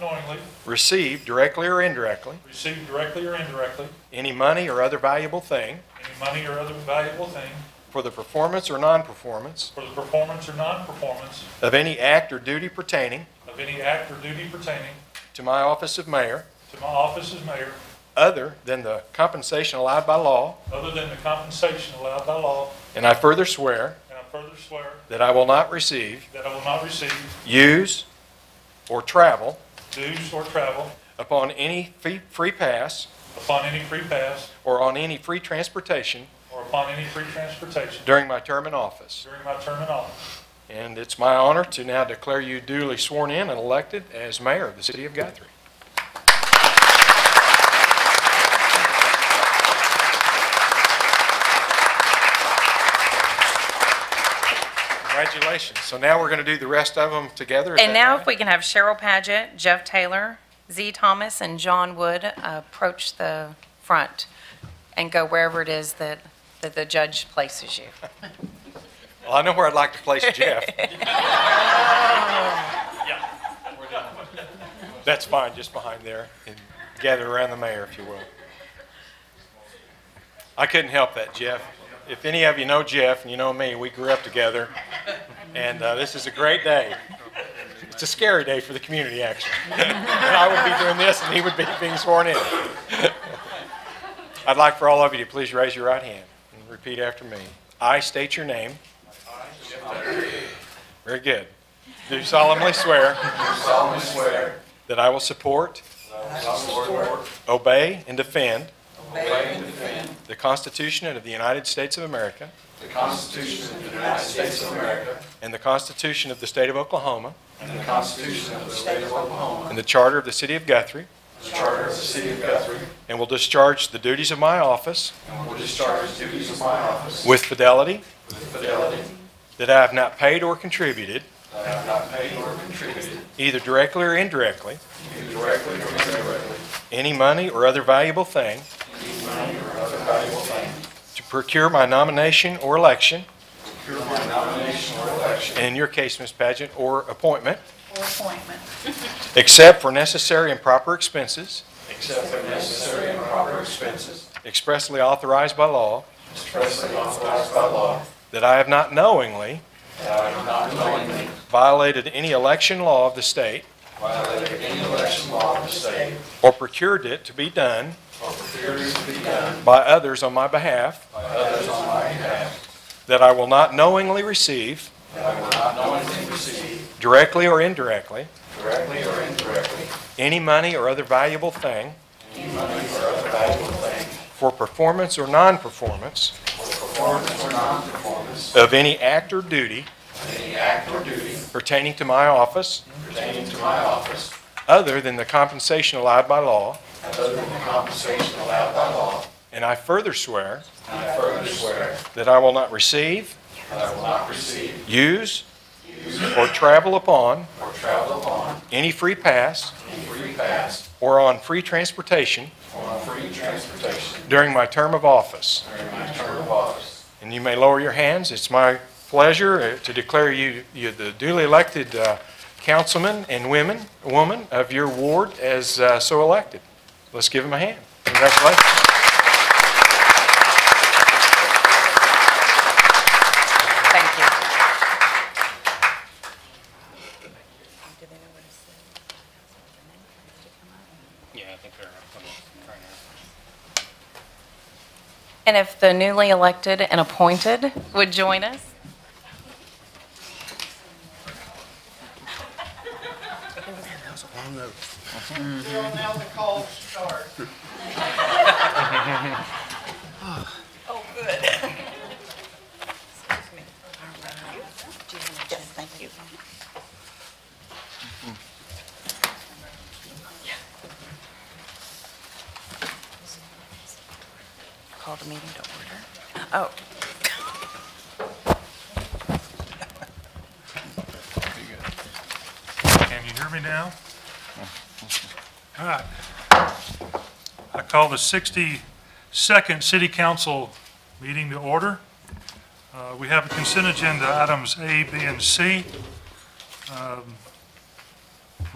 knowingly, receive directly or indirectly receive directly or indirectly, any money or other valuable thing any money or other valuable thing for the performance or non-performance for the performance or non-performance of any act or duty pertaining of any act or duty pertaining to my office of mayor to my office as mayor, other than the compensation allowed by law, other than the compensation allowed by law, and I further swear and I further swear that I will not receive, that I will not receive use, or travel dues or travel upon any fee- free pass upon any free pass or on any free transportation or upon any free transportation during my term in office. during my term in office. And it's my honor to now declare you duly sworn in and elected as mayor of the city of Guthrie. Congratulations. So now we're going to do the rest of them together. is And that now right? if we can have Cheryl Paget, Jeff Taylor, Z. Thomas, and John Wood uh, approach the front and go wherever it is that, that the judge places you. Well, I know where I'd like to place Jeff. That's fine, just behind there, and gather around the mayor, if you will. I couldn't help that, Jeff. If any of you know Jeff, and you know me, we grew up together, and uh, this is a great day. It's a scary day for the community, actually. And I would be doing this, and he would be being sworn in. I'd like for all of you to please raise your right hand and repeat after me. I state your name. Very good. Do solemnly swear. That I will support. Obey and defend. The Constitution of the United States of America. And the Constitution of the State of Oklahoma. And the Charter of the City of Guthrie. Charter of the City of Guthrie, And will discharge the duties of my office and will discharge the duties of my office with fidelity. with fidelity, That I have not paid or contributed, that I have not paid or contributed, either directly or indirectly, either directly or indirectly, any money or other valuable thing any money or other valuable thing, to procure my nomination or election, through my nomination or election, and in your case, Ms. Pageant, or appointment, or appointment, except for necessary and proper expenses except for necessary and proper expenses expressly authorized by law, expressly authorized by law, that I have not knowingly that I have not knowingly violated any election law of the state violated any election law of the state or procured it to be done or procured it to be done by others on my behalf, by others on my behalf, that I will not knowingly receive, that I will not knowingly receive, directly or indirectly, directly or indirectly, any money or other valuable thing any money or other valuable thing for performance or non-performance performance or non-performance of any act or duty of any act or duty pertaining to my office pertaining to my office other than the compensation allowed by law, other than the compensation allowed by law, and I further swear and I further swear that I will not receive, that I will not receive use, or travel upon or travel upon any free pass any free pass or on free transportation or on free transportation during my term of office. during my term of office. And you may lower your hands. It's my pleasure uh, to declare you, you the duly elected uh, councilman and women, woman of your ward as uh, so elected. Let's give him a hand. Congratulations. Thank you. Yeah, I think they're coming right now. And if the newly elected and appointed would join us? Well, now the calls start. Oh, good. Yes, thank you. Call the meeting to order. Oh. Can you hear me now? All right. I call the 62nd City Council meeting to order. Uh, We have a consent agenda items A, B, and C. Um,